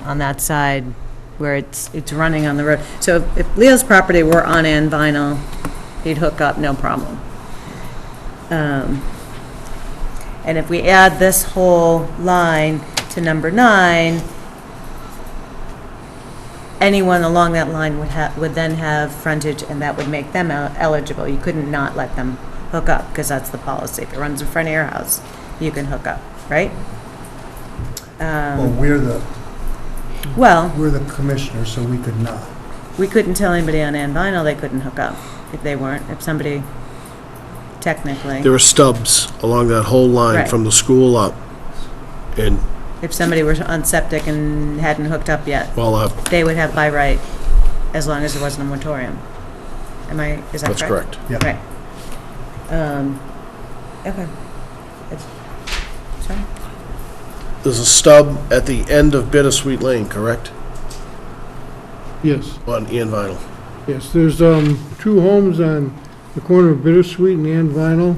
on that side where it's, it's running on the road. So if- if Leo's property were on end vinyl, he'd hook up, no problem. Um, And if we add this whole line to number nine, anyone along that line would have, would then have frontage, and that would make them el- eligible. You couldn't not let them hook up, because that's the policy. If it runs in front of your house, you can hook up, right? Well, Um, we're the, Well, we're the commissioner, so we could not. we couldn't tell anybody on Ann Vinyl they couldn't hook up if they weren't, if somebody technically, There are stubs along that whole line Right. from the school up. And, if somebody were on septic and hadn't hooked up yet, well, uh, they would have by right as long as there wasn't a moratorium. Am I, is that correct? that's correct. Right. Um, okay. It's- Sorry? There's a stub at the end of Bittersweet Lane, correct? Yes, On Ian Vinyl. yes, there's, um, two homes on the corner of Bittersweet and Ann Vinyl.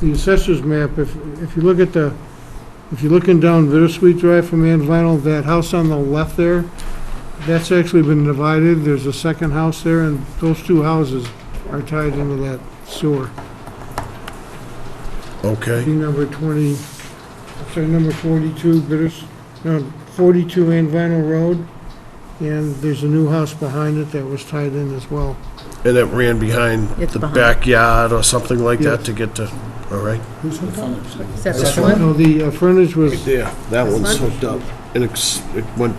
The assessor's map, if, if you look at the, if you're looking down Bittersweet Drive from Ann Vinyl, that house on the left there, that's actually been divided, there's a second house there, and those two houses are tied into that sewer. Okay. Be number twenty, sorry, number forty-two Bitters, no, forty-two Ann Vinyl Road, and there's a new house behind it that was tied in as well. And it ran behind It's the behind. backyard or something like that Yes. to get to, all right? Who's hooked up? Is that This this one? No, the uh, frontage was, there. That This one's one? hooked up. And it's, it went,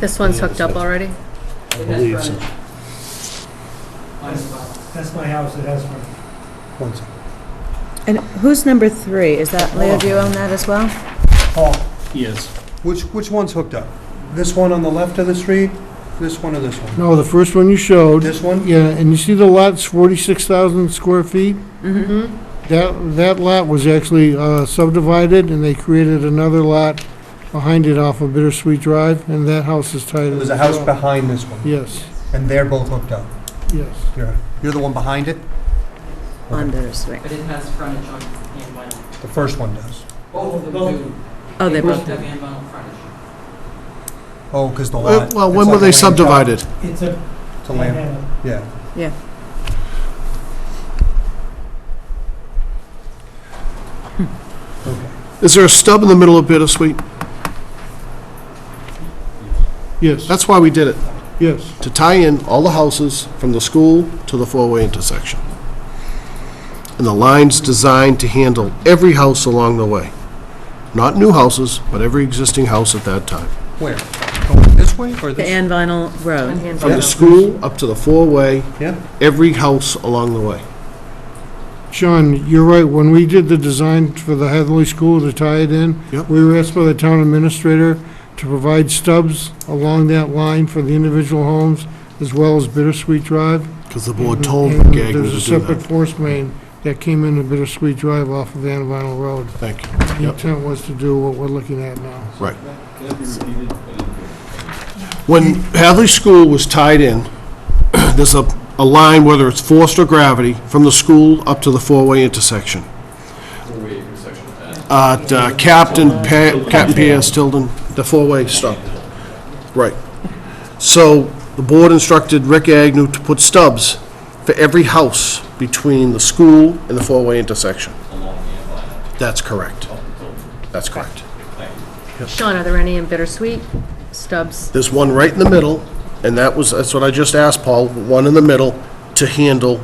This one's hooked up already? I believe, so. That's my house, it has one. One second. And who's number three? Is that, Leo, do you own that as well? Paul, Yes. which, which one's hooked up? This one on the left of the street, this one or this one? no, the first one you showed, This one? yeah, and you see the lot's forty-six thousand square feet? Mm-hmm. That, that lot was actually uh, subdivided, and they created another lot behind it off of Bittersweet Drive, and that house is tied in. There's a as house well. behind this one, Yes, and they're both hooked up. yes. You're, you're the one behind it? On Bittersweet. But it has frontage on Ann Vinyl. The first one does. Both of them Both. do. Oh, they both, both have Ann Vinyl frontage. Oh, because the lot. Uh, Well, it's when were like a they land shot subdivided? It's a To land, panhandle. yeah. Okay. Is there a stub in the middle of Bittersweet? Yes, That's why we did it, yes. to tie in all the houses from the school to the four-way intersection. And the line's designed to handle every house along the way. Not new houses, but every existing house at that time. Where? Going this way or the this? Ann Vinyl Road. From the school up to the four-way, Yeah. every house along the way. Sean, you're right, when we did the design for the Hathaway School to tie it in, Yep. we were asked by the town administrator to provide stubs along that line for the individual homes, as well as Bittersweet Drive. Because the board told Mm-hmm. And Gagnon to There's a do separate that. force main that came into Bittersweet Drive off of Van Vinyl Road. Thank you. The Yep. intent was to do what we're looking at now. When Hadley School was tied in, there's a, a line, whether it's forced or gravity, from the school up to the four-way intersection. At uh, Captain, Pa- Captain Pierce, Tilden, the four-way stop. Right. So the board instructed Rick Agnew to put stubs for every house between the school and the four-way intersection. That's correct. That's correct. Sean, are there any in bittersweet stubs? There's one right in the middle, and that was, that's what I just asked Paul, one in the middle to handle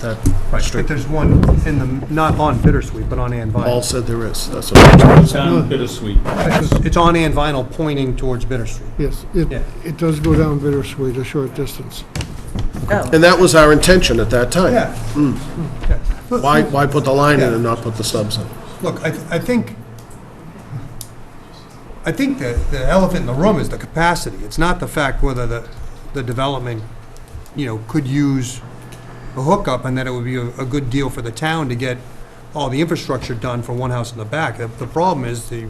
that But street. there's one in the, not on Bittersweet, but on Ann Paul Vinyl. said there is, that's what, Sound bittersweet. It's it's on Ann Vinyl pointing towards Bittersweet. Yes, it, Yeah. it does go down Bittersweet a short distance. Oh, and that was our intention at that time. Yeah. Look- Why, why put the line in and not put the subs in? Look, I, I think, I think the, the elephant in the room is the capacity. It's not the fact whether the, the development, you know, could use a hookup and that it would be a, a good deal for the town to get all the infrastructure done for one house in the back. The- The problem is the,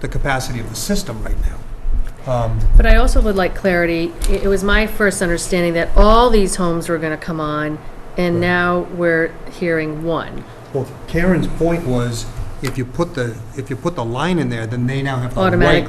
the capacity of the system right now. But I also would like clarity, it it was my first understanding that all these homes were going to come on, and now we're hearing one. Well, Karen's point was, if you put the, if you put the line in there, then they now have the right Automatically